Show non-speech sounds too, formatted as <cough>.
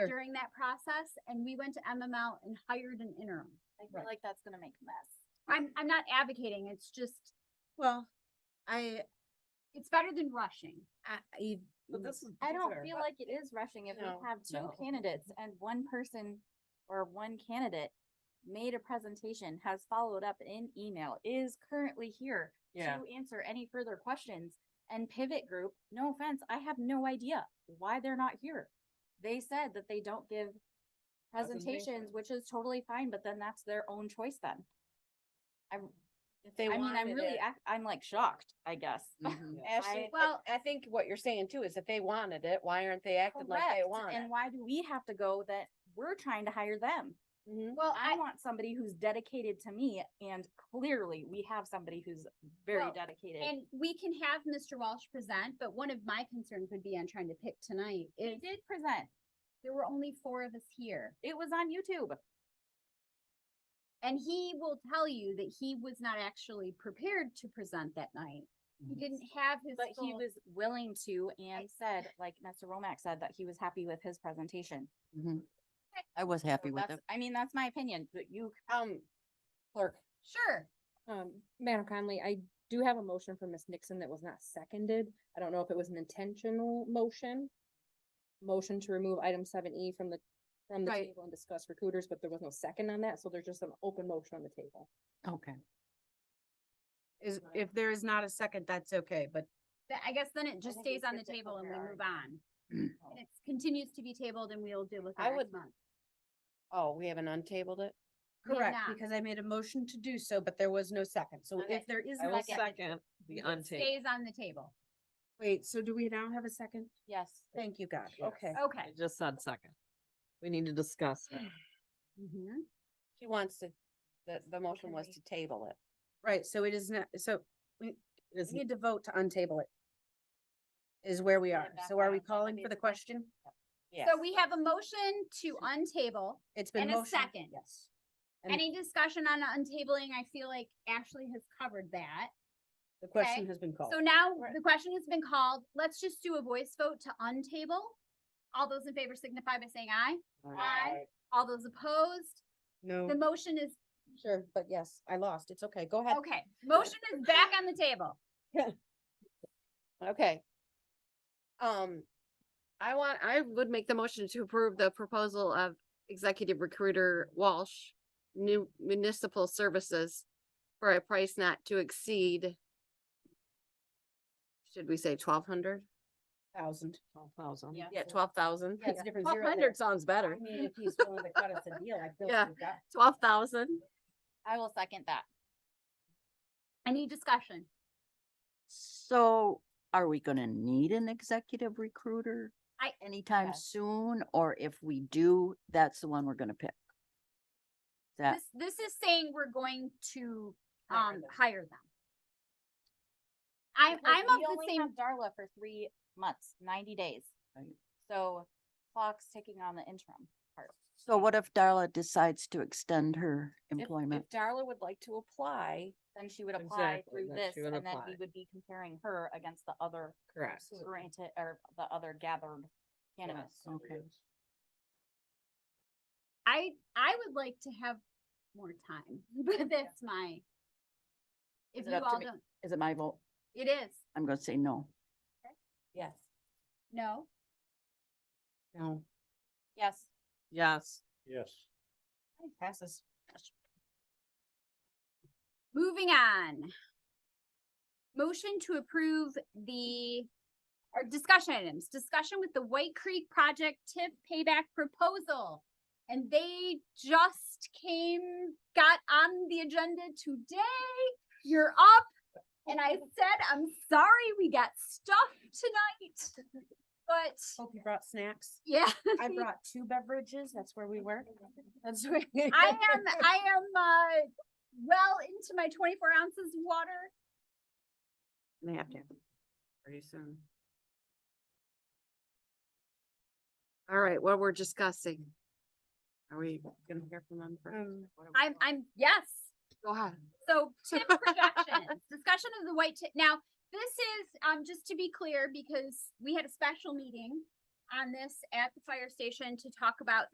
Sure. during that process and we went to MML and hired an interim. I Right. feel like that's gonna make a mess. I'm, I'm not advocating, it's just, Well, I, it's better than rushing. I, you. But this is. I don't fair. feel like it is rushing if we No, have two no. candidates and one person or one candidate made a presentation, has followed up in email, is currently here Yeah. <laughs> to answer any further questions. And pivot group, no offense, I have no idea why they're not here. They said that they don't give presentations, Presentation. which is totally fine, but then that's their own choice then. I'm, If they I mean, I'm wanted really, it. ac- I'm like shocked, I guess. Mhm. Ashley, Well- well, I think what you're saying too is if they wanted it, why aren't they acting like they Correct, want it? And why do we have to go that we're trying to hire them? Mhm. Well, I want somebody who's dedicated to me and clearly we have somebody who's very Well, dedicated. And we can have Mr. Walsh present, but one of my concerns would be on trying to pick tonight He is did present. there were only four of us here. It was on YouTube. And he will tell you that he was not actually prepared to present that night. He Mhm. didn't have his But he full- was willing to and said, like Mr. Romack said, that he was happy with his presentation. Mhm. I was happy So with it. that's- I mean, that's my opinion, but you, Um, clerk, Sure, Um, Madam Conley, I do have a motion from Ms. Nixon that was not seconded. I don't know if it was an intentional motion. Motion to remove item seven E from the, from the Right. table and discuss recruiters, but there was no second on that, so there's just an open motion on the table. Okay. Is, if there is not a second, that's okay, but Th- I guess then it just think we stays on the skipped it table and we over move <clears throat> on. And It continues to be tabled and we'll deal with it I next would- month. oh, we haven't untabled it? We have correct, not. because I made a motion to do so, but there was no second. So Okay. if there is I no will second, It Stays on the table. wait, so do we now have a second? yes. Thank you, God. Okay. Okay. just said second. We need to discuss it. Mm-hmm. Mhm. She wants to, the, the motion was Agree. to table it. Right, so it is not, so we It we is- need to vote to untable it. Is where we Put it are. back So are on. we calling Somebody for the is against question? Yes. So we have a motion to untable. It's been And a motioned. second. Yes. And- Any discussion on untabling? I feel like Ashley has covered that. The question has been Oh. called. So now the question has been called. Let's just do a voice vote to untable. All those in favor signify by saying aye. Aye. All those opposed, No. the motion is, Sure, but yes, I lost. It's okay. Go ahead. okay, motion is back on the table. Okay. Um, I want, I would make the motion to approve the proposal of executive recruiter Walsh, new municipal services for a price not to exceed, should we say twelve hundred? Thousand. Twelve thousand. Yeah, twelve thousand. Yeah, it's a different Twelve zero there. hundred sounds better. I mean, if he's willing to cut us a deal, I feel. Yeah. we've got- Twelve thousand. I will second that. Any discussion? So are we gonna need an executive recruiter? I- Anytime Yes. soon, or if we do, that's the one we're gonna pick? That, This, this is saying we're going to, Hire um, them. hire them. I'm, because I'm of we the only same, have Darla for three months, ninety days. Right. So clock's ticking on the interim part. so what if Darla decides to extend her If- employment? If Darla would like to apply, Then she would apply Exactly, through then this she would and then we apply. would be comparing her against the other Correct. granted or the other gathered candidates. Okay. I, I would like to have more time, but that's my. If it you up to all me? don't, Is it my vote? it is, I'm gonna say no. yes. no, No. Yes, Yes. Yes. Passes. moving on. Motion to approve the, or discussion items, discussion with the White Creek Project TIP payback proposal. And they just came, got on the agenda today, you're up. And I said, I'm sorry, we got stuff tonight, but Hope you brought snacks. yeah. <laughs> I brought two beverages. That's where we were. That's where. I <laughs> am, I am, uh, well into my twenty-four ounces of water. They have to. Pretty soon. All right, what we're discussing. Are we gonna hear from them first? Um, What are we I'm, doing? I'm, yes. Go ahead. So tip projections, discussion of the white tip. Now, this is, um, just to be clear, because we had a special meeting. on this at the fire station to talk about